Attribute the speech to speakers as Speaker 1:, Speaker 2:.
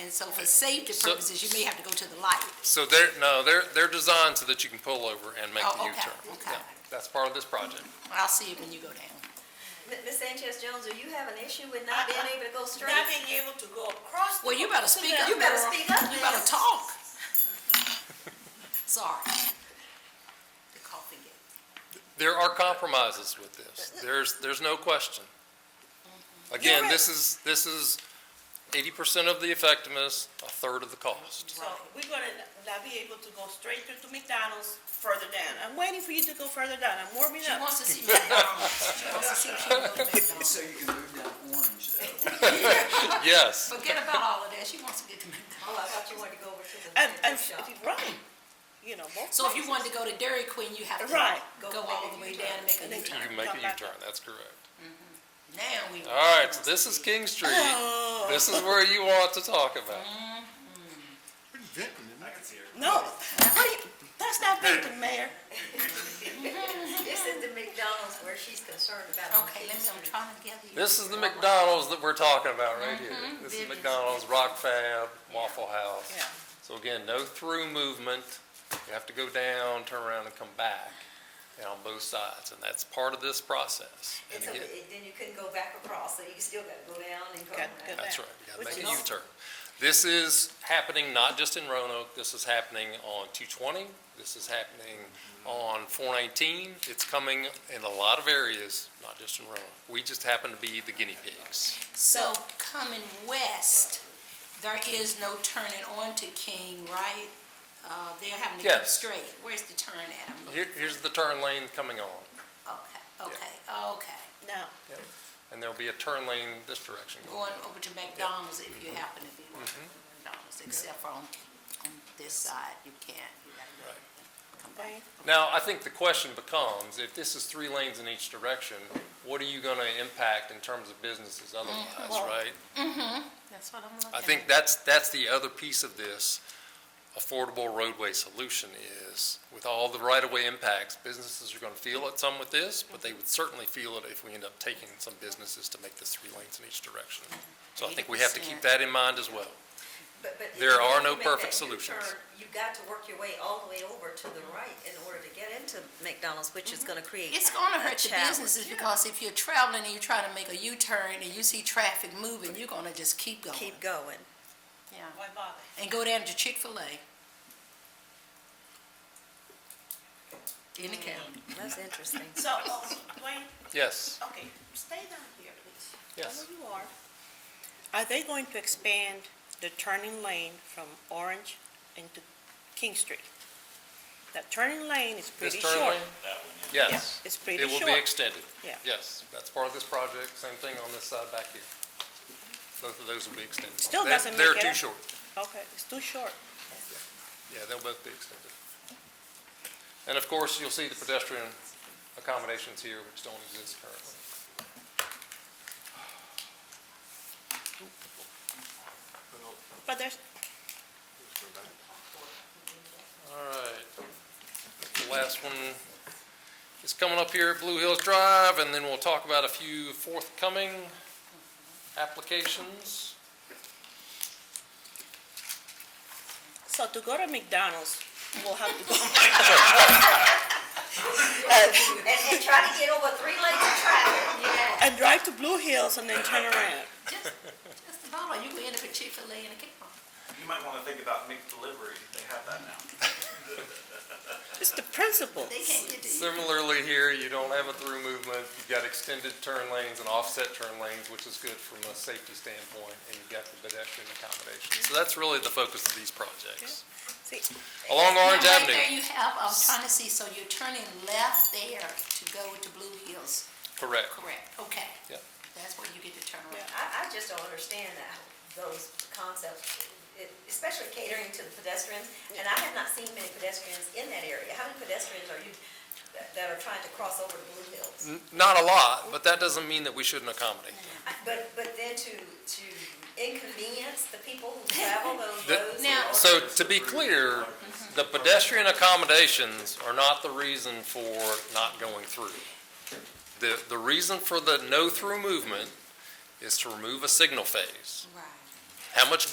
Speaker 1: And so for safety
Speaker 2: So-
Speaker 1: purposes, you may have to go to the light.
Speaker 2: So they're, no, they're, they're designed so that you can pull over and make the
Speaker 1: Oh,
Speaker 2: U-turn.
Speaker 1: okay, okay.
Speaker 2: Yeah, That's part of this project.
Speaker 1: I'll see it when you go down.
Speaker 3: M- Ms. Sanchez Jones, do you have an issue with not being able to go straight?
Speaker 4: Not being able to go across. the-
Speaker 1: Well, you better speak up,
Speaker 3: You better
Speaker 1: girl.
Speaker 3: speak up,
Speaker 1: You better
Speaker 3: miss.
Speaker 1: talk. Sorry. The coffee gate.
Speaker 2: There are compromises with this. There's, there's no question. Again, this is, this is eighty percent of the effectiveness, a third of the cost.
Speaker 4: So we're gonna not be able to go straight through to McDonald's further down. I'm waiting for you to go further down. I'm warming
Speaker 1: She
Speaker 4: up.
Speaker 1: wants to see McDonald's. She wants to see if she can go to McDonald's.
Speaker 5: So you can move down Orange, though.
Speaker 2: Yes,
Speaker 1: Forget about all of that. She wants to get to
Speaker 3: Oh, I
Speaker 1: McDonald's.
Speaker 3: thought you wanted to go over to the
Speaker 4: And,
Speaker 3: to the
Speaker 4: and,
Speaker 3: shop.
Speaker 4: right, you know, both.
Speaker 1: So if you wanted to go to Dairy Queen, you have to
Speaker 4: Right.
Speaker 1: go all the way down and make a
Speaker 4: And
Speaker 1: new
Speaker 2: you
Speaker 4: they-
Speaker 1: turn.
Speaker 2: can make a U-turn, that's correct.
Speaker 1: Now we.
Speaker 2: All right, so this is King Street. This is where you want to talk about.
Speaker 4: No, what do you- that's not being the mayor.
Speaker 3: This is the McDonald's where she's concerned about.
Speaker 1: Okay, let me, I'm trying to get you.
Speaker 2: This is the McDonald's that we're talking about right here. This is McDonald's, Rock Fab, Waffle House.
Speaker 4: Mm-hmm. Yeah.
Speaker 2: So again, no through movement. You have to go down, turn around and come back and on both sides. And that's part of this process.
Speaker 3: And
Speaker 2: And
Speaker 3: so
Speaker 2: again,
Speaker 3: it- then you couldn't go back across, so you still got to go down and go.
Speaker 4: Got-
Speaker 3: around.
Speaker 4: got
Speaker 2: that's
Speaker 4: that.
Speaker 2: right. You
Speaker 4: Which
Speaker 2: gotta make a
Speaker 4: is-
Speaker 2: U-turn. This is happening not just in Roanoke. This is happening on 220. This is happening on 419. It's coming in a lot of areas, not just in Roanoke. We just happen to be the guinea pigs.
Speaker 1: So coming west, there is no turning onto King, right? Uh, they're having to go
Speaker 2: Yes.
Speaker 1: straight. Where's the turn at? I'm
Speaker 2: Here, here's the turn lane coming on.
Speaker 1: Okay, okay, okay.
Speaker 4: Now,
Speaker 2: And there'll be a turn lane this direction. going.
Speaker 1: Going over to McDonald's if
Speaker 2: Mm-hmm.
Speaker 1: you happen to be working at McDonald's, except for on, on this side, you can't. You gotta go and come back.
Speaker 4: Wayne,
Speaker 2: Now, I think the question becomes, if this is three lanes in each direction, what are you going to impact in terms of businesses otherwise,
Speaker 4: Mm, Well-
Speaker 2: right?
Speaker 1: Mm-hmm. That's what I'm looking at.
Speaker 2: I think that's, that's the other piece of this affordable roadway solution is, with all the right-of-way impacts, businesses are going to feel it some with this, but they would certainly feel it if we end up taking some businesses to make this three lanes in each direction. So I think we have to keep
Speaker 1: 80%.
Speaker 2: that in mind as well.
Speaker 3: But- but if
Speaker 2: There
Speaker 3: you
Speaker 2: are no
Speaker 3: make
Speaker 2: perfect
Speaker 3: that
Speaker 2: solutions.
Speaker 3: U-turn, You've got to work your way all the way over to the right in order to get into McDonald's, which is going to create.
Speaker 1: Mm-hmm. It's gonna hurt your
Speaker 3: Challenge.
Speaker 1: businesses, because if you're traveling and you're trying to make a U-turn and you see traffic moving, you're gonna just keep going.
Speaker 3: Keep going.
Speaker 1: Yeah.
Speaker 4: why bother?
Speaker 1: And go down to Chick-fil-A. In the county.
Speaker 3: Mm, That's interesting.
Speaker 4: So, oh, Wayne,
Speaker 2: Yes?
Speaker 4: okay, stay down here, please.
Speaker 2: Yes.
Speaker 4: I know you are. Are they going to expand the turning lane from Orange into King Street? That turning lane is
Speaker 2: This
Speaker 4: pretty short.
Speaker 2: turn lane? Yes.
Speaker 4: Yeah, it's pretty
Speaker 2: It will be
Speaker 4: short.
Speaker 2: extended.
Speaker 4: Yeah.
Speaker 2: Yes, that's part of this project, same thing on this side back here. Both of those will be extended.
Speaker 4: Still
Speaker 2: They're-
Speaker 4: doesn't
Speaker 2: They're
Speaker 4: make it
Speaker 2: too
Speaker 4: up.
Speaker 2: short.
Speaker 4: Okay, it's too short.
Speaker 2: Yeah, they'll both be extended. And of course, you'll see the pedestrian accommodations here, which don't exist currently.
Speaker 4: But there's,
Speaker 2: All right. The last one is coming up here at Blue Hills Drive, and then we'll talk about a few forthcoming applications.
Speaker 4: so to go to McDonald's, we'll have to go.
Speaker 3: And, and try to get over three lanes of traffic. Yeah.
Speaker 4: And drive to Blue Hills and then turn around.
Speaker 1: Just, just the bottom, you can end up at Chick-fil-A in the county.
Speaker 6: You might want to think about McDelivery. They have that now.
Speaker 4: It's the principle.
Speaker 1: They can't get to you.
Speaker 2: Similarly here, you don't have a through movement, you've got extended turn lanes and offset turn lanes, which is good from a safety standpoint, and you've got the pedestrian accommodation. So that's really the focus of these projects.
Speaker 4: See,
Speaker 2: Along Orange
Speaker 1: Now,
Speaker 2: Avenue,
Speaker 1: Right there you have, I was trying to see, so you're turning left there to go to Blue Hills,
Speaker 2: correct.
Speaker 1: correct? Okay.
Speaker 2: Yep.
Speaker 1: That's where you get to turn around.
Speaker 3: I, I just don't understand that, those concepts, it- especially catering to the pedestrians. And I have not seen many pedestrians in that area. How many pedestrians are you, that- that are trying to cross over to Blue Hills?
Speaker 2: N- Not a lot, but that doesn't mean that we shouldn't accommodate.
Speaker 3: I- But, but then to, to inconvenience the people who travel those
Speaker 2: The-
Speaker 3: roads. in
Speaker 1: Now-
Speaker 3: order-
Speaker 2: So to be clear, the pedestrian accommodations are not the reason for not going through. The, the reason for the no-through movement is to remove a signal phase.
Speaker 1: Right.
Speaker 2: How much